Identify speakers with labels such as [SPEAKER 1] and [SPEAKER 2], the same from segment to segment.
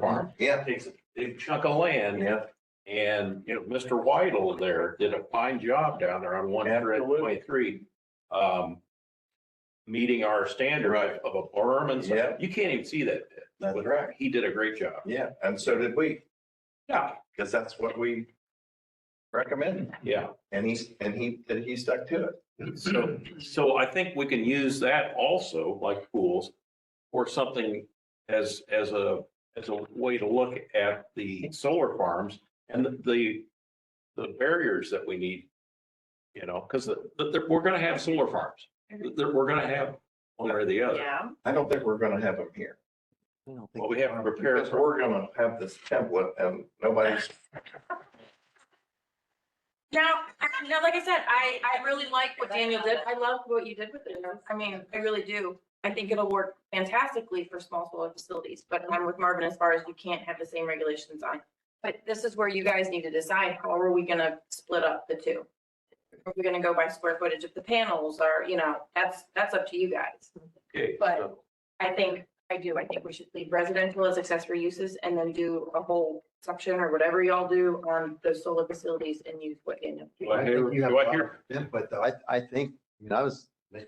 [SPEAKER 1] farm.
[SPEAKER 2] Yeah.
[SPEAKER 1] Takes a big chunk of land
[SPEAKER 2] Uh-huh. Yeah,
[SPEAKER 1] and, you know, Mr. Whittle there did a fine job down there on one hundred and twenty-three. Um, meeting our standard
[SPEAKER 2] Right.
[SPEAKER 1] of a berm and stuff.
[SPEAKER 2] Yeah.
[SPEAKER 1] You can't even see that. pit.
[SPEAKER 2] that's right.
[SPEAKER 1] He did a great job.
[SPEAKER 2] Yeah, and so did we,
[SPEAKER 1] Yeah,
[SPEAKER 2] because that's what we recommend.
[SPEAKER 1] yeah.
[SPEAKER 2] And he's, and he, and he stuck to it.
[SPEAKER 1] So, so I think we can use that also, like pools, or something as, as a, as a way to look at the solar farms and the, the barriers that we need. You know, because we're gonna have solar farms, There- we're gonna have one or the other.
[SPEAKER 3] Yeah,
[SPEAKER 2] I don't think we're gonna have him here.
[SPEAKER 1] Well, we haven't prepared,
[SPEAKER 2] Because we're gonna have this template and nobody's,
[SPEAKER 3] now, I- now, like I said, I, I really like what Daniel did. I love what you did with it. I mean, I really do. I think it'll work fantastically for small solar facilities, but I'm with Marvin as far as you can't have the same regulations on. But this is where you guys need to decide, how are we gonna split up the two? Are we gonna go by square footage of the panels or, you know, that's, that's up to you guys.
[SPEAKER 1] okay,
[SPEAKER 3] But-
[SPEAKER 1] so
[SPEAKER 3] I think, I do, I think we should leave residential as accessory uses and then do a whole section or whatever y'all do on those solar facilities and use what Daniel.
[SPEAKER 1] do I
[SPEAKER 4] I think
[SPEAKER 1] hear-
[SPEAKER 4] you have
[SPEAKER 1] do I
[SPEAKER 4] a lot
[SPEAKER 1] hear-
[SPEAKER 4] of Input though, I, I think, I mean, I was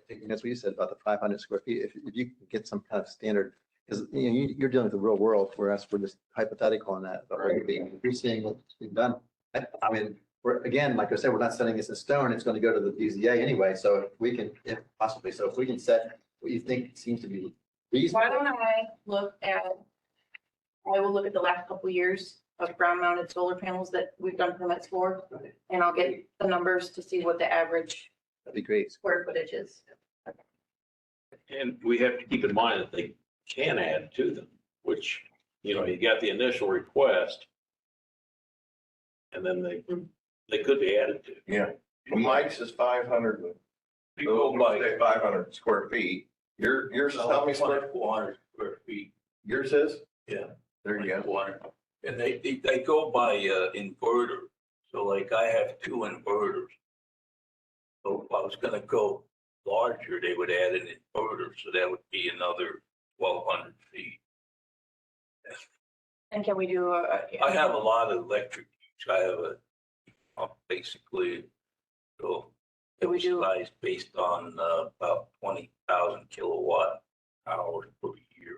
[SPEAKER 4] thinking, that's what you said about the five hundred square feet, if, if you can get some kind of standard, because, you know, you, you're dealing with the real world, whereas we're just hypothetical on that, but we're being, we're seeing what's been done. I, I mean, we're, again, like I said, we're not setting this in stone, it's gonna go to the BZA anyway, so if we can, if possibly, so if we can set what you think seems to be
[SPEAKER 3] Why
[SPEAKER 4] reasonable.
[SPEAKER 3] don't I look at, I will look at the last couple of years of ground mounted solar panels that we've done permits for. And I'll get the numbers to see what the average
[SPEAKER 4] That'd be great.
[SPEAKER 3] square footage is.
[SPEAKER 1] And we have to keep in mind that they can add to them, which, you know, you got the initial request. And then they, they could be added to.
[SPEAKER 2] yeah. Mike's is five hundred,
[SPEAKER 1] People like.
[SPEAKER 2] five hundred square feet. Your, yours is how many square?
[SPEAKER 5] Four hundred square feet.
[SPEAKER 2] Yours is?
[SPEAKER 5] Yeah.
[SPEAKER 2] There you go.
[SPEAKER 5] 400. And they, they, they go by, uh, inverter. So like I have two inverters. So if I was gonna go larger, they would add an inverter, so that would be another twelve hundred feet.
[SPEAKER 3] And can we do a?
[SPEAKER 5] I have a lot of electric, use. I have a, uh, basically, so it
[SPEAKER 3] Can we
[SPEAKER 5] was
[SPEAKER 3] do-
[SPEAKER 5] sized based on, uh, about twenty thousand kilowatt hours per year.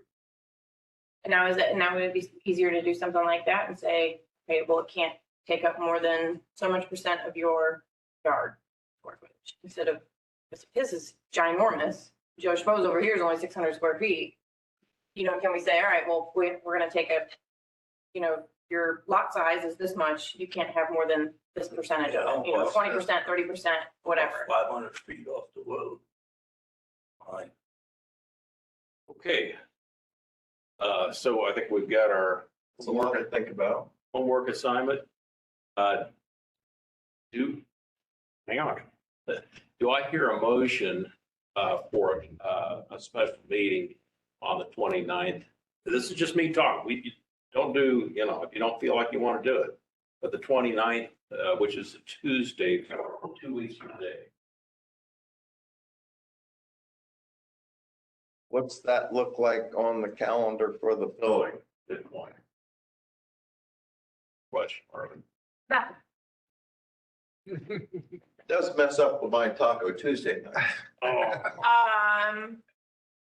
[SPEAKER 3] And Now is it, now would it be easier to do something like that and say, okay, well, it can't take up more than so much percent of your yard. square footage Instead of, this- this is ginormous. Joe Schmo's over here is only six hundred square feet. You know, can we say, all right, well, we, we're gonna take a, you know, your lot size is this much, you can't have more than this percentage of it, you know, twenty percent, thirty percent, whatever.
[SPEAKER 5] Five hundred feet off the road. Fine.
[SPEAKER 1] Okay. Uh, so I think we've got our
[SPEAKER 2] It's a lot to think about.
[SPEAKER 1] homework assignment. Uh, do, hang on. Do I hear a motion, uh, for, uh, a special meeting on the 29th? This is just me talking. We, you don't do, you know, if you don't feel like you want to do it. But the 29th, uh, which is a Tuesday, two weeks from today.
[SPEAKER 2] What's that look like on the calendar for the building?
[SPEAKER 1] Good point. Question, Marvin.
[SPEAKER 2] Does mess up with my Taco Tuesday night.
[SPEAKER 1] Oh,
[SPEAKER 3] Um,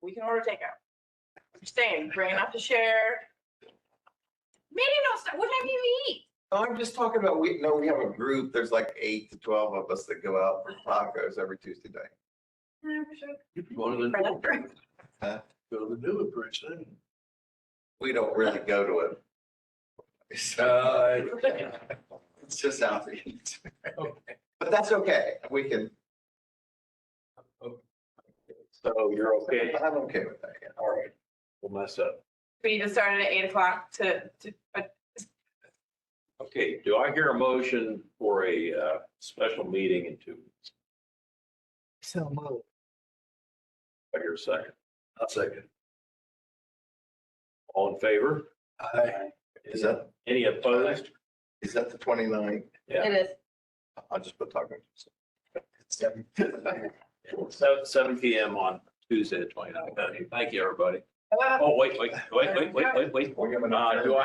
[SPEAKER 3] we can order takeout. Staying, bring enough to share. Maybe no, st- what time do you eat?
[SPEAKER 2] Oh, I'm just talking about, we, no, we have a group, there's like eight to twelve of us that go out for tacos every Tuesday night.
[SPEAKER 5] You can go to the,
[SPEAKER 3] For that-
[SPEAKER 5] go to the new address, then.
[SPEAKER 2] We don't really go to it. So
[SPEAKER 5] Uh,
[SPEAKER 2] it's just out to eat. But that's okay, we can,
[SPEAKER 1] so you're okay?
[SPEAKER 2] I'm okay with that. yeah.
[SPEAKER 1] All right. We'll mess up.
[SPEAKER 3] We just started at eight o'clock to, to, uh,
[SPEAKER 1] Okay, do I hear a motion for a uh, special meeting in two weeks?
[SPEAKER 4] So moved.
[SPEAKER 1] I hear a second.
[SPEAKER 5] I'll second.
[SPEAKER 1] All in favor?
[SPEAKER 5] Aye.
[SPEAKER 2] Is that,
[SPEAKER 1] Any opposed?
[SPEAKER 2] is that the 29th?
[SPEAKER 1] Yeah.
[SPEAKER 3] it is.
[SPEAKER 2] I'll just put Taco Tuesday.
[SPEAKER 1] Seven, seven P M on Tuesday, the twenty-ninth. Thank you, everybody.
[SPEAKER 3] Uh,
[SPEAKER 1] Oh, wait, wait, wait, wait, wait, wait, wait.
[SPEAKER 2] We have
[SPEAKER 1] Uh,
[SPEAKER 2] enough.
[SPEAKER 1] do I